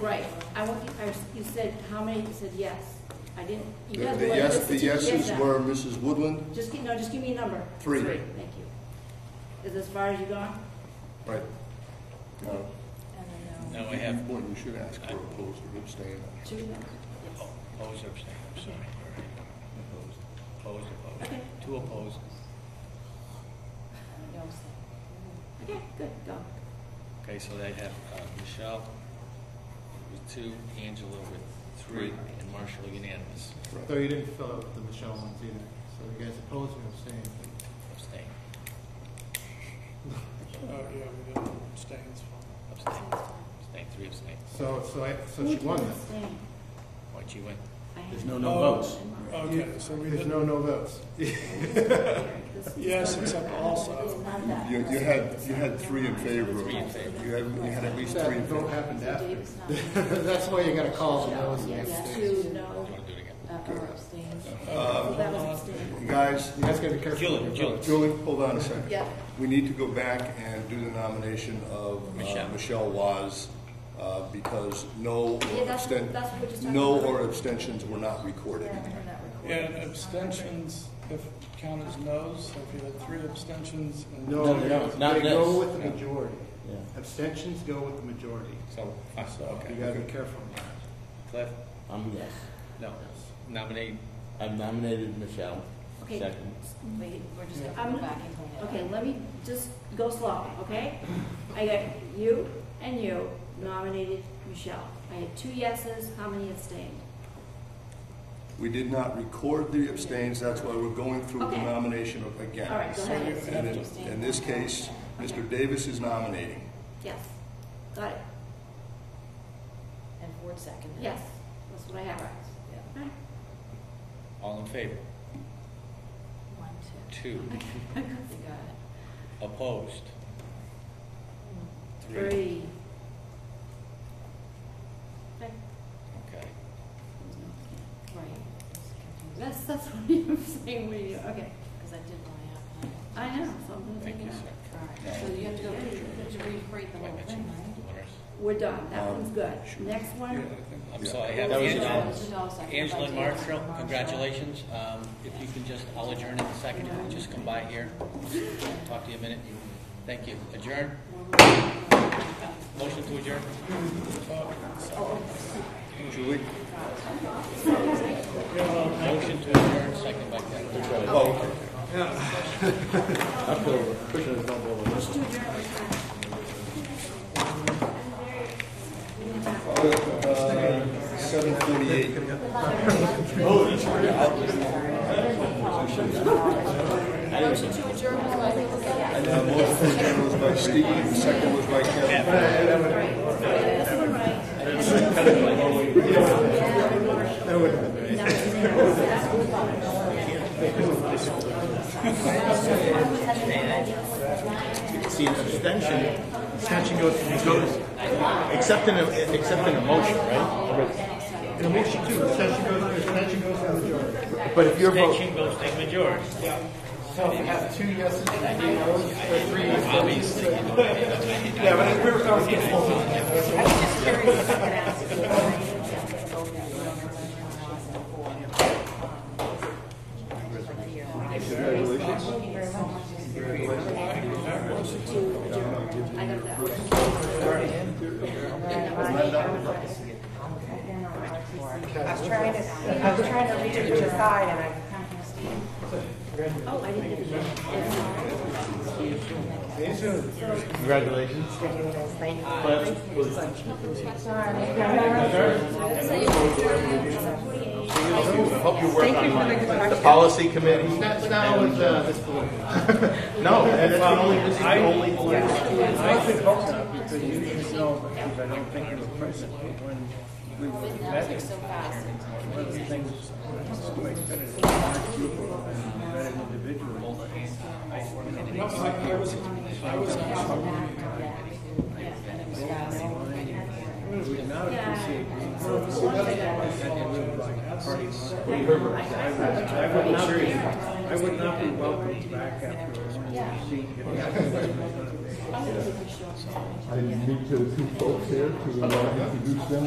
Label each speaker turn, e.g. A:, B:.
A: Right, I want, you- I- you said, how many, you said yes. I didn't, you
B: The
A: guys
B: the
A: were like,
B: yes,
A: listen
B: the
A: to yes
B: yeses
A: now.
B: were Mrs. Woodland,
A: Just give, no, just give me a number.
B: three.
C: Three.
A: Thank you. Is as far as you gone?
B: Right. No,
A: And
C: No, I
B: you-
C: have
B: Well, Uh, you should ask for opposed or abstain.
A: Two, no? Yes.
C: oh, opposed or abstained, I'm sorry. All right. Opposed, opposed,
A: Okay.
C: two opposed.
A: Okay, good, go.
C: Okay, so they have uh, Michelle with two, Angela with three, and Marshall unanimous,
D: So you didn't fill out the Michelle ones either, so you guys opposed or abstained?
C: abstain,
E: Oh, yeah, we got abstains
C: abstain, abstain, three abstain.
D: So, so I, so she won then?
A: Abstain.
C: Why'd you win?
A: I
B: There's
A: have-
B: no
E: no
B: no votes.
E: votes. Oh, Okay, so we
D: There's
E: did,
D: no no votes.
A: This is-
E: yes, except also,
A: It's not that.
B: You, you had, you had three in favor of it.
C: Three in favor.
B: You had, you had at least three in
D: That vote
B: favor.
D: happened
A: So
D: after.
A: Dave's not in.
D: That's why you gotta call the no's and
A: Yes,
D: abstains.
A: two,
C: Do
A: no,
C: you want to do it again?
A: uh, or abstain. That was
B: Um,
A: abstain.
B: Guys, uh,
D: You guys gotta be careful.
C: Julie,
D: with your
C: Julie.
D: votes.
B: Julie, hold on a second.
A: Yeah.
B: We need to go back and do the nomination of uh,
C: Michelle.
B: Michelle Waz, uh, because no
A: Yeah,
B: or
A: that's-
B: absten,
A: that's what we're just talking
B: no
A: about.
B: or abstentions were not recorded.
E: and abstentions, if count as no's, so if you had three abstentions and.
D: No,
F: No, no, not
D: they go
F: this.
D: with the majority.
F: Yeah.
D: Abstentions go with the majority.
C: So, uh, so,
D: You
C: okay.
D: gotta be careful. with that.
C: Cliff,
F: I'm yes.
C: no, nominate,
F: I've nominated Michelle.
A: Okay.
F: Second.
G: Wait, we're just
D: Yeah.
G: gonna go back and clean it up.
A: Okay, let me just go slow, okay? I got you and you nominated Michelle. I had two yeses, how many abstained?
B: We did not record the abstains, that's why we're going through the
A: Okay.
B: nomination of- again.
A: All right, go ahead.
B: And in- In this case, Mr. Davis is nominating.
A: Yes, got it,
G: And Ford seconded.
A: yes, that's what I have.
G: Yeah.
A: Alright.
C: all in favor?
G: One, two,
C: Two,
G: we got it.
C: opposed? Three,
A: Three. Okay.
C: okay.
G: Right.
A: That's, that's what you're saying, what you, okay.
G: Because I did want to
A: I know, so I'm gonna take
C: Thank you,
A: it out.
C: sir.
G: have. All right, so you have to go, to recreate the
C: Wait,
G: whole
C: I
G: thing,
C: mentioned the
G: right?
C: winners.
A: We're done, that
B: Um,
A: one's good.
B: sure.
A: Next
E: Yeah, I
A: one,
E: think
C: I'm
B: Yeah.
C: sorry, I have
F: That was
C: Angela.
F: unanimous.
C: Angela and Marshall, congratulations. Um, If you can just, I'll adjourn in a second, if you just come by here, talk to you a minute. Thank you. Adjourn? Motion to adjourn?
B: Julie?
C: Motion to adjourn, second by Kevin.
B: Oh, okay.
F: Up over. Pushing his bump over.
B: Uh, Seven forty-eight.
G: Motion to adjourn, I think, was that?
B: Motion for adjournment was by Steve, second was by Kevin.
F: See, an abstention, abstention goes, goes, except in a, except in a motion, right?
D: In a motion too, abstention goes, abstention goes to the majority.
F: But if your vote,
C: Motion goes to majority.
D: So if you have two yeses and three noes, or three yeses. Yeah, but if we're, I was getting
A: I got that one.
H: I was trying to, I was trying to reach it to the side and I
A: Oh, I didn't. get it.
F: congratulations. Hope you work on the policy committee.
D: That's not always, uh, this political.
F: No, that's the only, this is the only.
D: I should hope not, because you should know, because I don't think it's present when we were met. One of the things, that's the way that it is, that an individual. We would not appreciate being I would not be, I would not be welcomed back after a one-year seat.
F: I didn't meet the two folks here to introduce them.